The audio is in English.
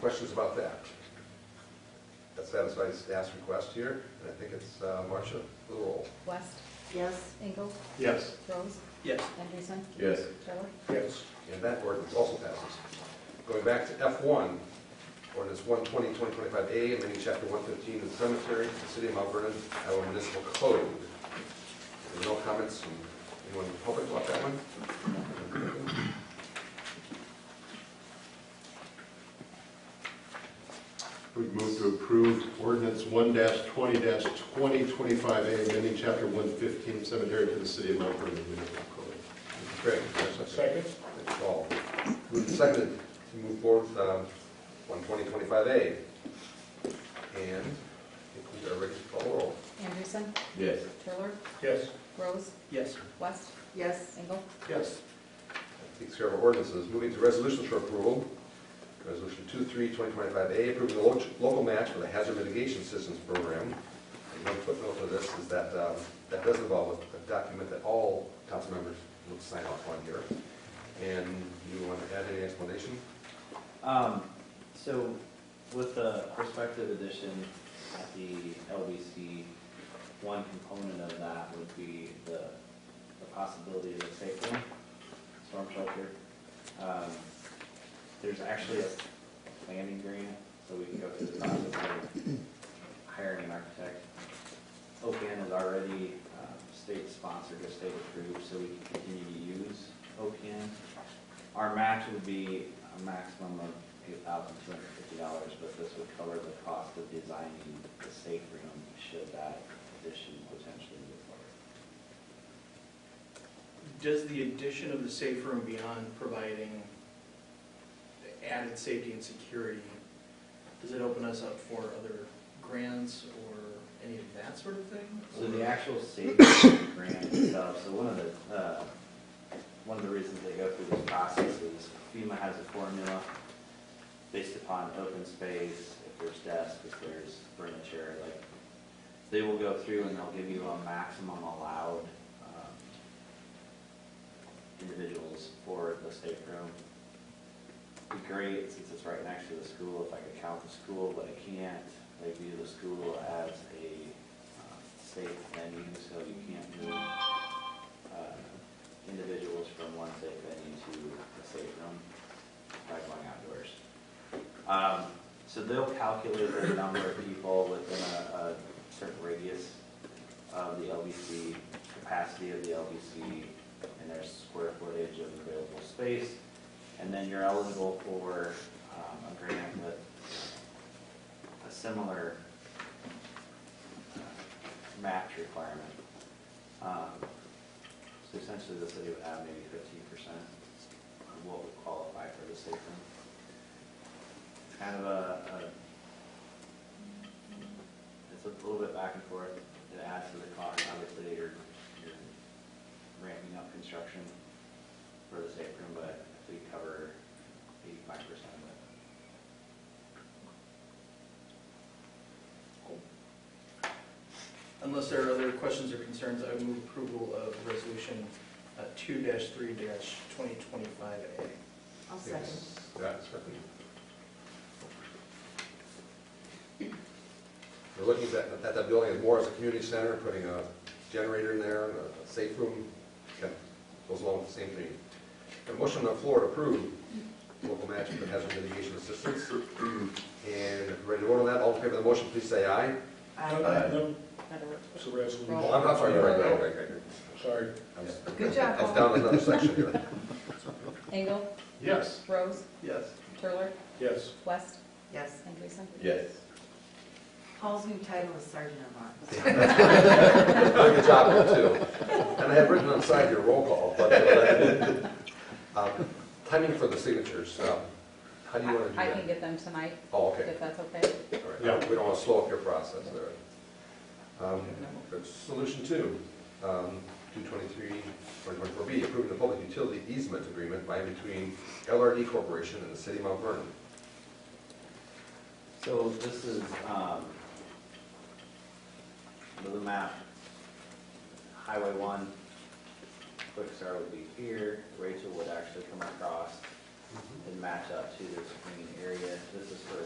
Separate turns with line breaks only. questions about that? That satisfies staff's request here, and I think it's uh, Marcia, the roll.
West,
Yes.
Engel,
Yes.
Rose,
Yes.
Anderson,
Yes.
Trevor.
Yes.
And that ordinance also passes. Going back to F1, ordinance 120, 2025A, amending chapter 115 of the cemetery, of the city of Mount Vernon, Iowa Municipal Code. There are No comments from anyone in the public about that one?
We move to approve ordinance one twenty twenty twenty-five A, amending chapter one fifteen cemetery to the city of Mount Vernon Municipal Code.
Craig, is there a second? Thank you all. Moved and seconded to move forward with um, 12025A. And I think we are ready to call the roll.
Anderson,
Yes.
Trevor,
Yes.
Rose,
Yes.
West,
Yes.
Engel,
Yes.
That Takes care of our ordinances. Moving to resolutions for approval. Resolution 23-2025A, approving the lo- local match for the hazard mitigation systems program. And one footnote to this is that, um, that does involve a document that all council members will sign off on here. And you want to add any explanation?
Um, so with the prospective addition at the LBC, one component of that would be the, the possibility of a safe room, storm shelter. Um, there's actually a landing grant, so we can go through the process of hiring an architect. OPM is already, uh, state sponsored or state approved, so we can continue to use OPM. Our match would be a maximum of eight thousand two hundred fifty dollars, but this would cover the cost of designing the safe room should that addition potentially be required.
Does the addition of the safe room beyond providing added safety and security, does it open us up for other grants or any of that sort of thing?
So the actual safe room grant itself, so one of the, uh, one of the reasons they go through this process is FEMA has a formula based upon open space, if there's desks, if there's furniture, like, they will go through and they'll give you a maximum allowed um, individuals for the safe room. It'd Be great, since it's right next to the school, if I could count the school, but I can't. They view the school as a um, safe venue, so you can't move uh, individuals from one safe venue to a safe room by going outdoors. Um, So they'll calculate the number of people within a a certain radius of the LBC, capacity of the LBC, and their square footage of available space. And then you're eligible for um, a grant with a similar uh, match requirement. Um, So essentially, the city would have maybe fifteen percent of what would qualify for the safe room. Kind of a, a it's a little bit back and forth. It adds to the cost, obviously, you're, you're ramping up construction for the safe room, but we cover eighty-five percent of it.
Unless there are other questions or concerns, I would move approval of resolution uh, two three twenty twenty-five A.
I'll second.
Yeah, second. We're looking at, that- at that building as more as a community center, putting a generator in there, and a safe room, kind of goes along with the same thing. A motion on the floor to approve local match for hazard mitigation assistance. And if we're ready to vote on that, all in favor of the motion, please say aye.
Aye.
It's a resolution.
Oh, I'm, I'm sorry, you're right, right, right, right, right.
Sorry.
I'm s-
Good job,
I was
Paul.
down in another section here.
Engel,
Yes.
Rose,
Yes.
Turler,
Yes.
West,
Yes.
Anderson.
Yes.
Paul's new title is Sergeant of Arms.
Very good job, you too. And I have written on the side your roll call, but uh, um, timing for the signatures, um, how do you want to do
I I can
that?
get them tonight,
Oh, okay,
if that's okay.
all right. We don't want to slow up your process there. Um, Solution two, um, 223, 2024B, approving the public utility easement agreement by and between LRD Corporation and the City of Mount Vernon.
So this is, um, the map, Highway one, Quick Start would be here, Rachel would actually come across and match up to this green area. This is for